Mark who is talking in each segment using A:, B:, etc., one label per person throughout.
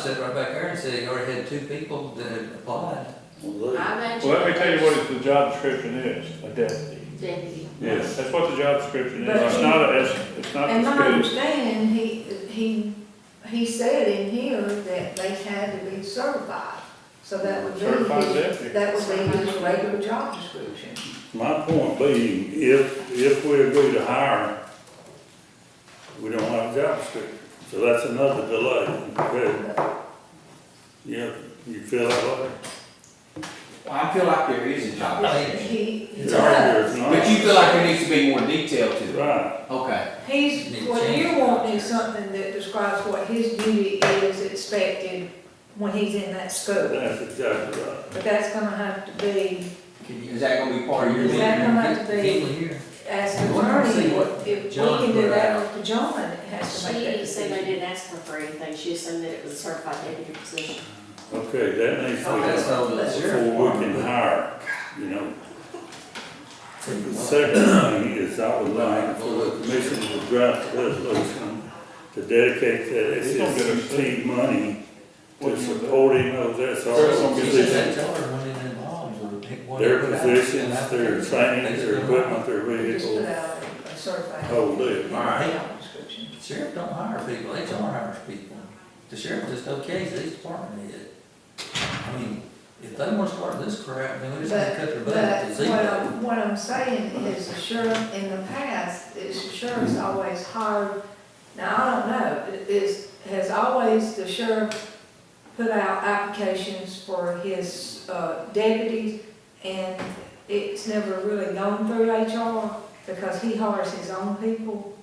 A: sat right back there and said, you already had two people that had applied.
B: Well, look,
C: I imagine.
D: Well, let me tell you what the job description is, a deputy.
C: Deputy.
B: Yes.
D: That's what the job description is,
E: But-
D: it's not, a- it's, it's not as
E: And my
D: good as,
E: understanding, he, he, he said in here that they had to be certified. So that would be
D: Certified
E: his,
D: deputy.
E: that would be his regular job description.
B: my point being, if, if we agree to hire, we don't have a job description. So that's another delay. Okay. Yeah, you feel that way?
F: Well, I feel like there is a job description,
E: He, he
B: It's argued,
E: does.
B: it's not.
F: but you feel like there needs to be more detail to it.
B: Right,
F: Okay,
E: He's, what you're wanting is something that describes what his duty is expected when he's in that school.
B: that's exactly right.
E: But that's gonna have to be,
A: Can you-
F: is that gonna be part of your
E: Is
F: meeting?
E: that gonna have to
A: Get
E: be,
A: people here.
E: ask the
A: Well, I don't see
E: attorney,
A: what
E: if we
A: John
E: can do
A: put
E: that
A: out.
E: or if John has to make that
C: She said they
E: decision.
C: didn't ask her for anything, she assumed that it was certified deputy position.
B: Okay, that needs to
A: Oh, that's
B: be
A: all that's your.
B: before we can hire, you know. The second thing is I would like for the commission to draft a resolution to dedicate that SST money to supporting of this
A: That
B: organization.
A: charter went in involved or pick one.
B: Their positions, their training, their equipment, their
E: Just put
B: vehicles,
E: out a certified.
D: Oh,
B: whole deal.
A: All right.
E: Job description.
A: The Sheriff don't hire people, HR hires people. The sheriff just okays these department head. I mean, if they wanna start this crap, then we just gotta cut their
E: But
A: budget to
E: what
A: zero.
E: I'm, what I'm saying is the sheriff, in the past, is the sheriff's always hired, now, I don't know, is, has always the sheriff put out applications for his uh, deputies, and it's never really gone through HR, because he hires his own people.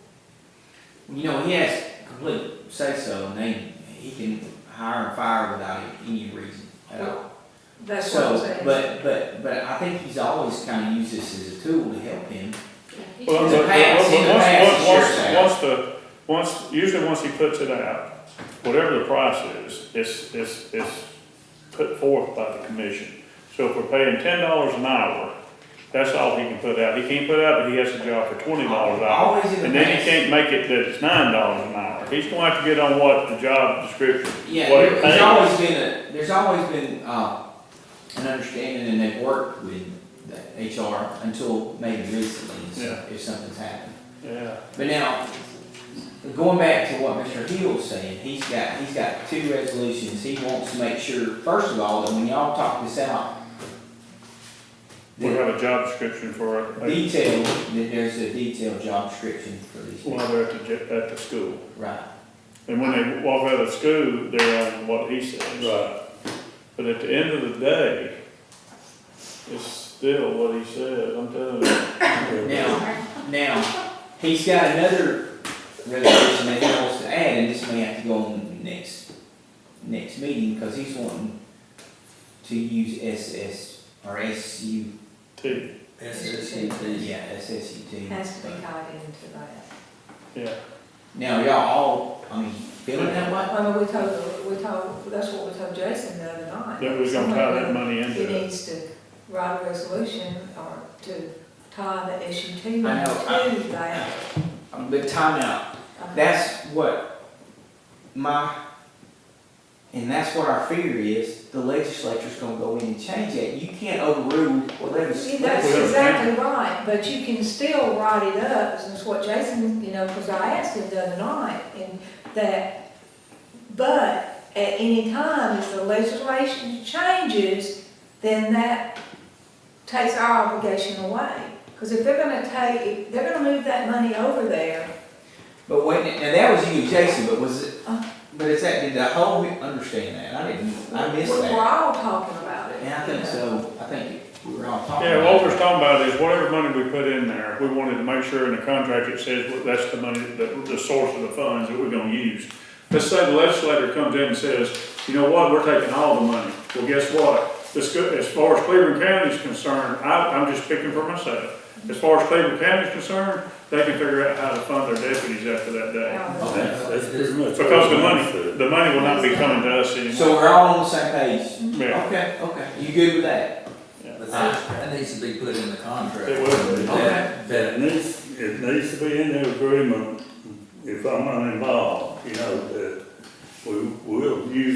F: You know, he has complete say-so, and they, he can hire and fire without any reason at all.
E: That's what I'm
F: So,
E: saying.
F: but, but, but I think he's always kind of used this as a tool to help him.
D: well,
F: In
D: but,
F: the
D: but-
F: past, in the
D: but
F: past, sure.
D: once, once, once the, once, usually once he puts it out, whatever the price is, it's, it's, it's put forth by the commission. So if we're paying ten dollars an hour, that's all he can put out, he can't put out that he has a job for twenty dollars an hour.
F: Always in the
D: And then he
F: past.
D: can't make it that it's nine dollars an hour, he's gonna have to get on what the job description,
F: Yeah,
D: Well,
F: there-
D: hey.
F: there's always been a, there's always been, uh, an understanding and they've worked with the HR until maybe recently, if some- if something's happened.
D: yeah.
F: But now, going back to what Mr. Hill's saying, he's got, he's got two resolutions, he wants to make sure, first of all, that when y'all talk this out,
D: We
F: that
D: have a job description for, a- a-
F: detail, that there's a detailed job description for these people,
D: while they're at the, j- at the school.
F: right?
D: And when they walk out of school, they're on what he says.
B: Right.
D: But at the end of the day, it's still what he said, I'm telling you.
F: Now, now, he's got another resolution that he wants to add, and this may have to go on the next, next meeting, because he's wanting to use SS, or SU,
D: T,
A: SSCT.
F: yeah, SSUT.
E: Has to be tied into that.
D: yeah.
F: Now, y'all all, I mean, feeling that way?
E: I mean, we told, we told, that's what we told Jason the other night.
D: That was gonna tie that money
E: He
D: into it.
E: needs to write a resolution or to tie the SUT money
F: I know, I-
E: to that.
F: Um, But time out,
E: I mean,
F: that's what my, and that's what our fear is, the legislature's gonna go in and change that, you can't overrule what
E: See,
F: legis-
E: that's
D: Well,
E: exactly right, but you can still write it up, and it's what Jason, you know, because I asked him the other night, and that, but at any time, if the legislation changes, then that takes our obligation away. Because if they're gonna take, if they're gonna move that money over there,
F: But wait, now that was you, Jason, but was it,
E: Uh.
F: but it's that, did the whole, we understand that, I didn't, I missed
E: we're
F: that.
E: all talking about it.
F: And I think so, I think we were all talking
D: Yeah, what
F: about
D: we're
F: it.
D: talking about is whatever money we put in there, we wanted to make sure in the contract it says what- that's the money, the, the source of the funds that we're gonna use. Let's say the legislator comes in and says, you know what, we're taking all the money. Well, guess what? As, go- as far as Cleveland County is concerned, I, I'm just picking for myself. As far as Cleveland County is concerned, they can figure out how to fund their deputies after that day.
E: Now,
B: That's, that's pretty much.
D: Because the
B: what I
D: money,
B: said.
D: the money will not be coming to us anymore.
F: So we're all on the same page?
D: Yeah,
F: Okay, okay, you good with that?
A: But that, that needs to be put in the contract.
D: It will.
A: That- that
B: It needs, it needs to be in the agreement, if I'm not involved, you know, that we will use